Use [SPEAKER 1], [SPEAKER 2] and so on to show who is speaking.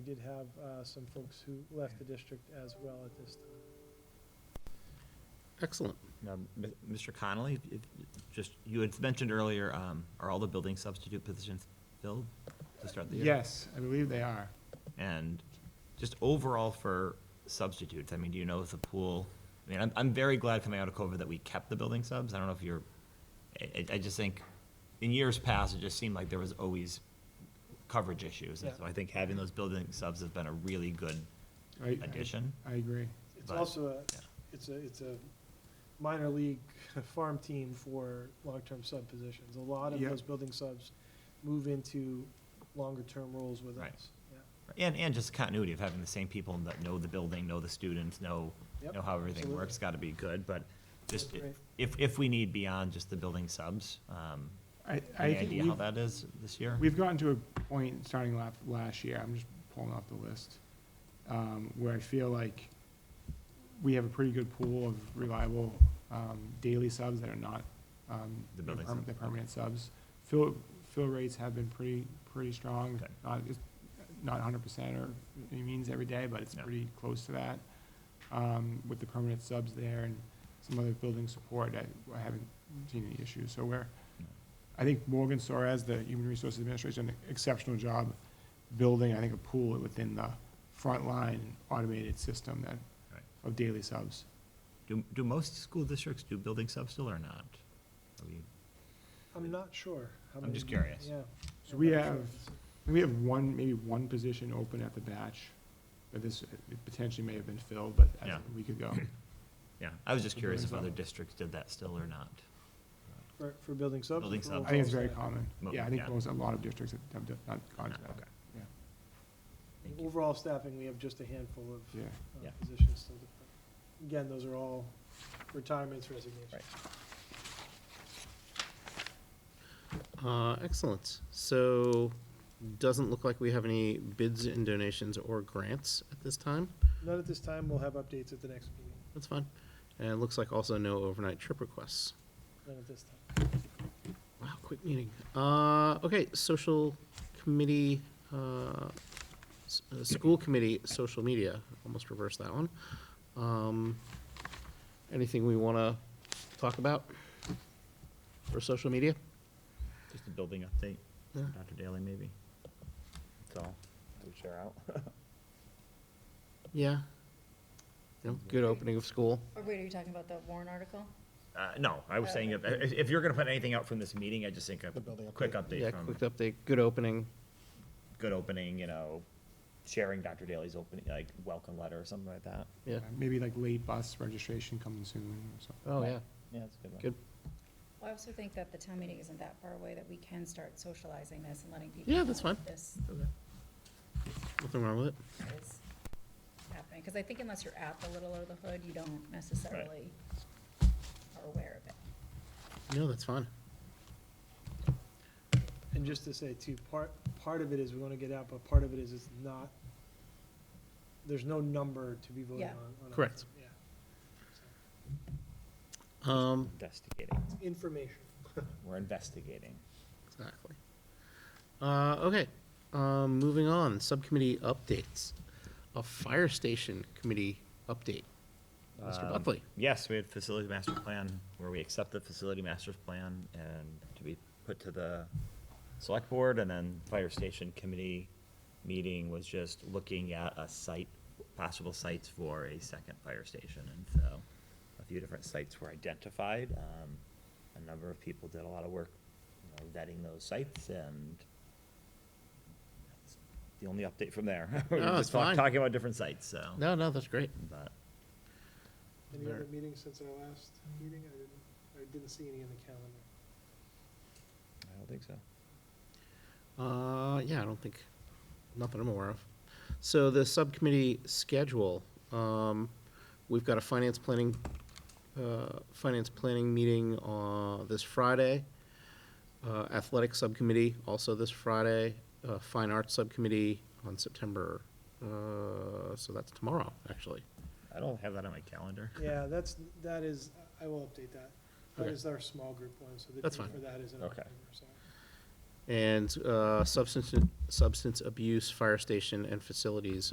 [SPEAKER 1] did have uh, some folks who left the district as well at this time.
[SPEAKER 2] Excellent.
[SPEAKER 3] Now, M- Mr. Connolly, if- if- just, you had mentioned earlier, um, are all the building substitute positions filled to start the year?
[SPEAKER 4] Yes, I believe they are.
[SPEAKER 3] And just overall for substitutes, I mean, do you know if the pool, I mean, I'm, I'm very glad coming out of COVID that we kept the building subs. I don't know if you're, I- I, I just think, in years past, it just seemed like there was always coverage issues. And
[SPEAKER 1] Yeah.
[SPEAKER 3] so I think having those building subs has been a really good
[SPEAKER 4] I- I-
[SPEAKER 3] addition.
[SPEAKER 4] I agree.
[SPEAKER 1] It's
[SPEAKER 3] But-
[SPEAKER 1] also a,
[SPEAKER 3] yeah.
[SPEAKER 1] it's a, it's a minor league farm team for long-term sub positions. A lot of
[SPEAKER 4] Yeah.
[SPEAKER 1] those building subs move into longer-term roles with
[SPEAKER 3] Right.
[SPEAKER 1] us. Yeah.
[SPEAKER 3] And, and just continuity of having the same people that know the building, know the students, know,
[SPEAKER 1] Yep,
[SPEAKER 3] know how everything
[SPEAKER 1] absolutely.
[SPEAKER 3] works, gotta be good, but just,
[SPEAKER 1] That's great.
[SPEAKER 3] if, if we need beyond just the building subs, um,
[SPEAKER 4] I, I
[SPEAKER 3] any
[SPEAKER 4] think
[SPEAKER 3] idea how
[SPEAKER 4] we've,
[SPEAKER 3] that is this year?
[SPEAKER 4] we've gotten to a point, starting last, last year, I'm just pulling off the list, um, where I feel like we have a pretty good pool of reliable, um, daily subs that are not, um,
[SPEAKER 3] The building
[SPEAKER 4] perm-
[SPEAKER 3] sub.
[SPEAKER 4] The permanent subs. Fill, fill rates have been pretty, pretty strong, Uh,
[SPEAKER 3] Okay.
[SPEAKER 4] not, it's not hundred percent or any means every day, but it's
[SPEAKER 3] Yeah.
[SPEAKER 4] pretty close to that. Um, with the permanent subs there and some other building support, I, I haven't seen any issues, so we're, I think Morgan Suarez, the Human Resources Administration, did an exceptional job building, I think, a pool within the frontline automated system that,
[SPEAKER 3] Right.
[SPEAKER 4] of daily subs.
[SPEAKER 3] Do, do most school districts do building subs still or not? Are we-
[SPEAKER 1] I'm not sure. how
[SPEAKER 3] I'm
[SPEAKER 1] many-
[SPEAKER 3] just curious.
[SPEAKER 1] Yeah.
[SPEAKER 4] So
[SPEAKER 1] I'm
[SPEAKER 4] we
[SPEAKER 1] not sure.
[SPEAKER 4] have- We have one, maybe one position open at the batch, but this it potentially may have been filled, but that's
[SPEAKER 3] Yeah.
[SPEAKER 4] a week ago.
[SPEAKER 3] Yeah, I was just
[SPEAKER 4] The
[SPEAKER 3] curious if
[SPEAKER 4] building
[SPEAKER 3] other
[SPEAKER 4] sub.
[SPEAKER 3] districts did that still or not.
[SPEAKER 1] For, for building subs. or
[SPEAKER 3] Building
[SPEAKER 1] for
[SPEAKER 3] subs.
[SPEAKER 1] overall
[SPEAKER 4] I think it's very
[SPEAKER 1] staff?
[SPEAKER 4] common.
[SPEAKER 3] Mo-
[SPEAKER 4] Yeah, I think
[SPEAKER 3] yeah.
[SPEAKER 4] most, a lot of districts have- have not gone
[SPEAKER 3] Ah,
[SPEAKER 4] to that.
[SPEAKER 3] okay.
[SPEAKER 4] Yeah,
[SPEAKER 3] Thank you.
[SPEAKER 1] Overall staffing, we have just a handful of
[SPEAKER 4] yeah.
[SPEAKER 1] uh,
[SPEAKER 3] Yeah.
[SPEAKER 1] positions still. to fill. Again, those are all retirements, resignations.
[SPEAKER 3] Right.
[SPEAKER 2] Uh, excellent. So, doesn't look like we have any bids and donations or grants at this time.
[SPEAKER 1] Not at this time. We'll have updates at the next meeting.
[SPEAKER 2] That's fine. And it looks like also no overnight trip requests.
[SPEAKER 1] Not at this time.
[SPEAKER 2] Wow, quick meeting. Uh, okay, social committee, uh, s- uh, school committee, social media, almost reversed that one. Um, anything we wanna talk about for social media?
[SPEAKER 3] Just a building update,
[SPEAKER 2] Yeah.
[SPEAKER 3] Dr. Daly, maybe? That's all. we share out?
[SPEAKER 2] Yeah. You know, good opening of school.
[SPEAKER 5] Or wait, are you talking about the Warren article?
[SPEAKER 3] Uh, no, I was saying, if, if if you're gonna put anything out from this meeting, I just think a quick
[SPEAKER 2] Yeah,
[SPEAKER 3] update from
[SPEAKER 2] quick update, good opening.
[SPEAKER 3] good opening, you know, sharing Dr. Daly's opening, like, welcome letter or something like that.
[SPEAKER 2] Yeah.
[SPEAKER 4] Uh, Maybe like late bus registration coming soon or something.
[SPEAKER 2] Oh, yeah.
[SPEAKER 3] Yeah, that's a good one.
[SPEAKER 2] Good.
[SPEAKER 5] Well, I also think that the town meeting isn't that far away, that we can start socializing this and letting people.
[SPEAKER 2] Yeah, that's
[SPEAKER 5] know
[SPEAKER 2] fine.
[SPEAKER 5] This
[SPEAKER 2] Nothing wrong with it.
[SPEAKER 5] is happening, because I think unless you're at the Little Over the Hood, you don't necessarily are aware of it.
[SPEAKER 2] No, that's fine.
[SPEAKER 1] And just to say too, part, part of it is we want to get out, but part of it is it's not, there's no number to be voted
[SPEAKER 5] Yeah.
[SPEAKER 1] on. on a-
[SPEAKER 2] Correct.
[SPEAKER 1] Yeah.
[SPEAKER 2] Um,
[SPEAKER 3] Investigating,
[SPEAKER 1] It's Information.
[SPEAKER 3] we're investigating.
[SPEAKER 2] exactly. Uh, okay, um, moving on, subcommittee updates. A fire station committee update. Mr.
[SPEAKER 3] Um,
[SPEAKER 2] Buckley.
[SPEAKER 3] Yes, we had facility master plan, where we accept the facility master's plan and to be put to the select board, and then fire station committee meeting was just looking at a site, possible sites for a second fire station, and so a few different sites were identified. Um, A number of people did a lot of work, you know, vetting those sites, and that's the only update from there. We were
[SPEAKER 2] No,
[SPEAKER 3] just
[SPEAKER 2] it's
[SPEAKER 3] talk-
[SPEAKER 2] fine.
[SPEAKER 3] Talking about different sites, so.
[SPEAKER 2] No, no, that's great.
[SPEAKER 3] But,
[SPEAKER 1] Any
[SPEAKER 2] There-
[SPEAKER 1] other meetings since our last meeting? I didn't, I didn't see any in the calendar.
[SPEAKER 3] I don't think so.
[SPEAKER 2] Uh, yeah, I don't think, not that I'm aware of. So the subcommittee schedule, um, we've got a finance planning, uh, finance planning meeting, uh, this Friday. Uh, athletic subcommittee also this Friday, uh, fine arts subcommittee on September, uh, so that's tomorrow, actually.
[SPEAKER 3] I don't have that on my calendar.
[SPEAKER 1] Yeah, that's, that is, I will update that. That
[SPEAKER 2] Okay.
[SPEAKER 1] is our small group one, so the
[SPEAKER 2] That's
[SPEAKER 1] date
[SPEAKER 2] fine.
[SPEAKER 1] for that is in
[SPEAKER 3] Okay.
[SPEAKER 1] October, so.
[SPEAKER 2] and uh, substance, substance abuse, fire station, and facilities